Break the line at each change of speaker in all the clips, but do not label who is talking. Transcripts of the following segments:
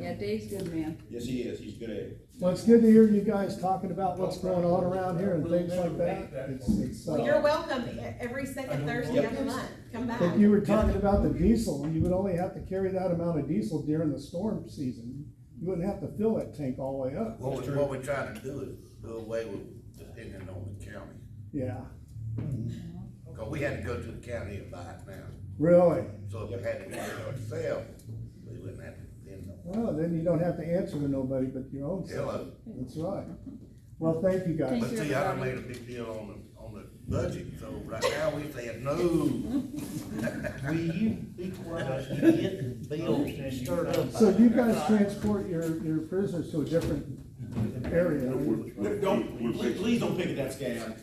Yeah, Dave's a good man.
Yes, he is, he's good at it.
Well, it's good to hear you guys talking about what's going on around here and things like that. It's, it's,
Well, you're
uh,
welcome e- every second Thursday of the month, come back.
If you were talking about the diesel, you would only have to carry that amount of diesel during the storm season. You wouldn't have to fill that tank all the way up.
What we, what we're trying to do is do away with depending on the county,
Yeah,
cause we had to go to the county and buy it now.
really.
So if we had to do it ourselves, we wouldn't have to depend on
Well, then you don't have to answer to nobody but your own self.
Hello,
That's right. Well, thank you guys.
but
Thank you,
see, I done
everybody.
made a big deal on the, on the budget, so right now we saying no.
Will you be quiet and get Bill stirred up?
So you guys transport your, your prisoners to a different area.
Don't, please, please don't pick at that scab.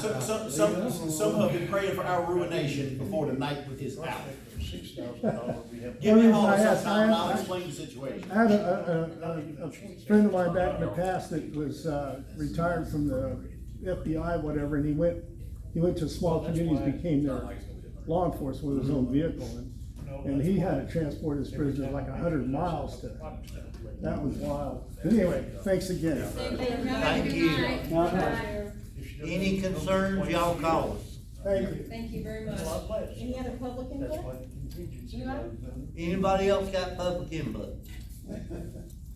Some, some, some, some have been praying for our ruination before the night with his out.
Six thousand dollars, we have.
Give me a
Well,
call
I asked-
sometime, and
I
I'll
asked-
explain the situation.
I had a, a, a, a friend of mine back in the past that was, uh, retired from the FBI, whatever, and he went, he went to small communities, became their law enforcement with his own vehicle, and, and he had to transport his prisoners like a hundred miles to, that was wild. But anyway, thanks again.
Thank
you.
Bye.
Any concerns, y'all call us.
Thank you.
Thank you very much.
Any other public
That's
input?
why the contingency uh,
You are?
is done.
Anybody else got public input?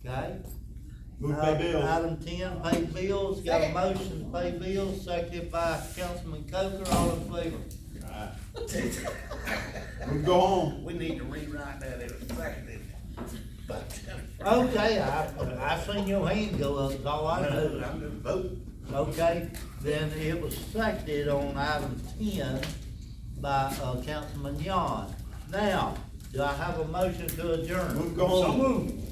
Okay?
Move by
Item-
Bill.
Item ten, pay bills, got a motion to pay bills, seconded by Councilman Coker, all in favor.
Move, Go home.
We need to rewrite that in a second, but,
Okay, I, I seen your hand go up, is all I
no,
know.
I'm gonna vote.
Okay, then it was seconded on item ten by, uh, Councilman Yon. Now, do I have a motion to adjourn?
Move, Go home.